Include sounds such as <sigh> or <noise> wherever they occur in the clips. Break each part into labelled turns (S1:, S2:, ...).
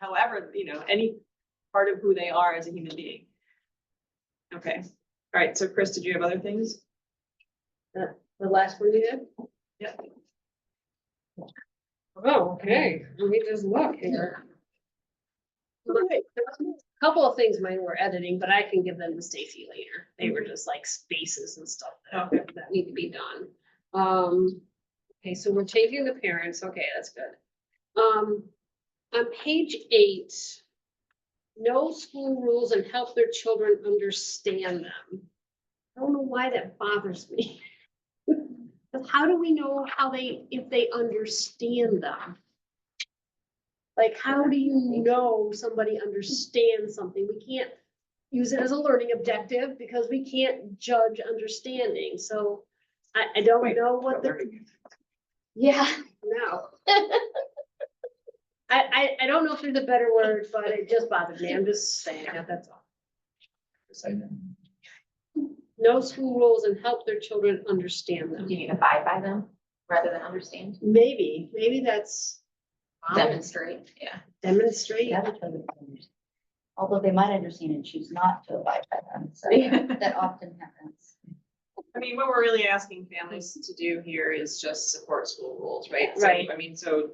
S1: however, you know, any part of who they are as a human being. Okay, all right, so Chris, did you have other things?
S2: The last one you did?
S1: Yep.
S2: Oh, okay, let me just look here.
S1: Okay.
S2: Couple of things mine were editing, but I can give them to Stacy later. They were just like spaces and stuff that,
S1: Okay.
S2: that need to be done. Um, okay, so we're changing the parents. Okay, that's good. Um, on page eight, no school rules and help their children understand them. I don't know why that bothers me. <laughs> But how do we know how they, if they understand them? Like, how do you know somebody understands something? We can't use it as a learning objective because we can't judge understanding, so I, I don't
S1: Wait,
S2: know what the, yeah, no. I, I, I don't know if there's a better word, but it just bothered me. I'm just saying that, that's all. No school rules and help their children understand
S3: Do
S2: them.
S3: you need to abide by them rather than understand,
S2: Maybe, maybe that's.
S3: demonstrate, yeah.
S2: Demonstrate.
S4: have a total change. Although they might understand and choose not to abide by them,
S3: <laughs>
S4: so that often happens.
S1: I mean, what we're really asking families to do here is just support school rules, right? So,
S2: Right.
S1: I mean, so.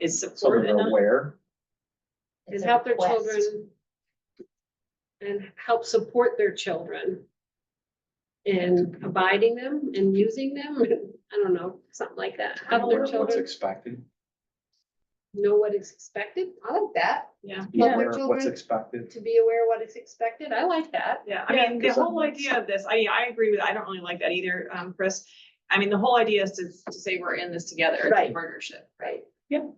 S1: Is
S5: So
S1: support
S5: they're
S1: enough?
S5: aware,
S2: And
S4: It's a
S2: help their
S4: request.
S2: children. And help support their children. In abiding them and using them, <laughs> I don't know, something like that. Help
S5: aware
S2: their
S5: of what's
S2: children
S5: expected,
S2: know what is expected. I like that.
S1: Yeah,
S5: be
S2: Yeah.
S5: aware of what's
S2: Children-
S5: expected.
S2: To be aware of what is expected. I like that.
S1: yeah, I mean, the
S5: Yeah.
S1: whole idea of this, I, I agree with, I don't really like that either, um, Chris. I mean, the whole idea is to, to say we're in this together, it's
S2: Right.
S1: a partnership.
S2: Right.
S1: Yeah.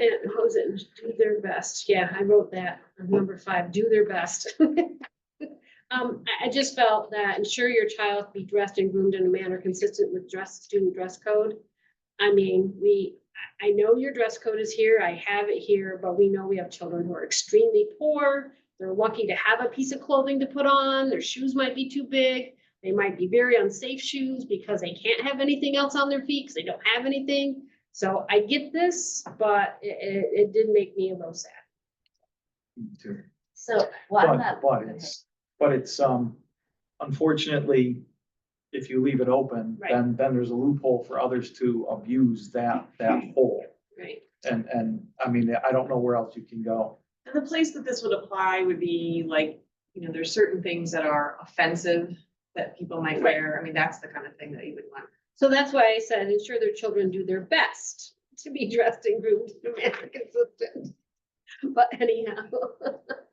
S2: And how's it, do their best, yeah, I wrote that, on number five, do their best. <laughs> Um, I, I just felt that ensure your child be dressed and groomed in a manner consistent with dress, student dress code. I mean, we, I, I know your dress code is here, I have it here, but we know we have children who are extremely poor. They're lucky to have a piece of clothing to put on, their shoes might be too big. They might be very unsafe shoes because they can't have anything else on their feet because they don't have anything. So I get this, but it, it, it did make me a little sad.
S5: too.
S4: So, well, I'm not.
S5: But, but it's, but it's, um, unfortunately, if you leave it open,
S2: Right.
S5: then, then there's a loophole for others to abuse that, that hole.
S2: Right.
S5: And, and, I mean, I don't know where else you can go.
S1: And the place that this would apply would be like, you know, there's certain things that are offensive that people might
S2: Right.
S1: wear. I mean, that's the kind of thing that you would want.
S2: So that's why I said ensure their children do their best to be dressed and groomed to manner consistent. But anyhow,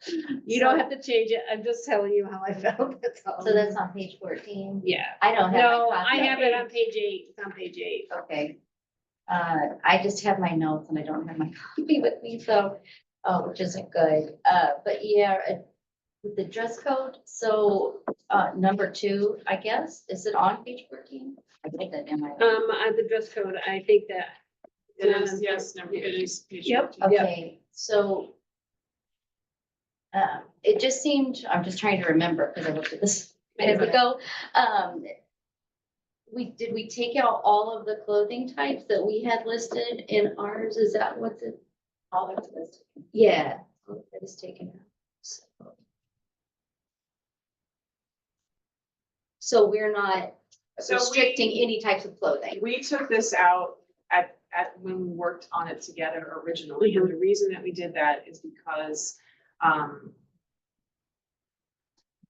S2: <laughs> you don't have to change it. I'm just telling you how I felt. <laughs> That's all.
S4: So that's on page fourteen.
S2: Yeah.
S4: I don't have. my
S2: No, I
S4: copy.
S2: have it on page eight. It's on page eight.
S4: Okay. Uh, I just have my notes and I don't have my <laughs> copy with me, so, uh, which isn't good. Uh, but yeah, uh, with the dress code, so, uh, number two, I guess, is it on page fourteen? I think that in my.
S2: Um, on the dress code, I think that
S1: It
S2: Yeah.
S1: is, yes, no, it is. page
S2: Yep.
S1: 14.
S4: Okay, so. Um, it just seemed, I'm just trying to remember, because I looked at this minutes ago, um. We, did we take out all of the clothing types that we had listed in ours? Is that what's it? All that's listed. Yeah, all of that is taken out. so. So we're not
S1: So we-
S4: restricting any types of clothing.
S1: We took this out at, at, when we worked on it together originally, and the reason that we did that is because, um,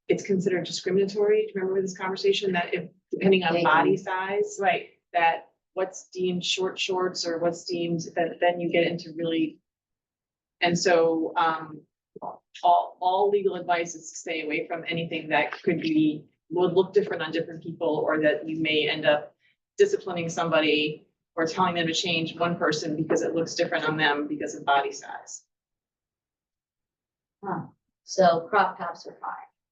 S1: it's considered discriminatory, remember this conversation, that if, depending on body size,
S2: Right.
S1: that what's deemed short shorts or what's deemed, that then you get into really. And so, um, all, all legal advice is to stay away from anything that could be, would look different on different people, or that you may end up disciplining somebody or telling them to change one person because it looks different on them because of body size.
S4: Huh. So crop tops are fine,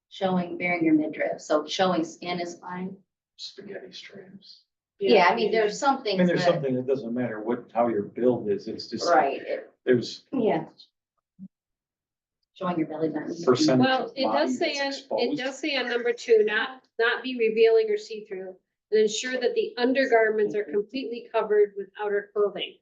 S4: showing, bearing your midriff, so showing skin is fine.
S5: Spaghetti strands.
S4: Yeah, I mean, there's some
S5: I
S4: things
S5: mean, there's
S4: that,
S5: something that doesn't matter what, how your build is, it's just,
S4: right, it-
S5: there's
S4: yeah. Showing your belly button.
S5: percentage
S2: Well,
S5: of
S2: it
S5: body
S2: does say, on
S5: that's
S2: it
S5: exposed.
S2: does say on number two, not, not be revealing or see-through, and ensure that the undergarments are completely covered with outer clothing.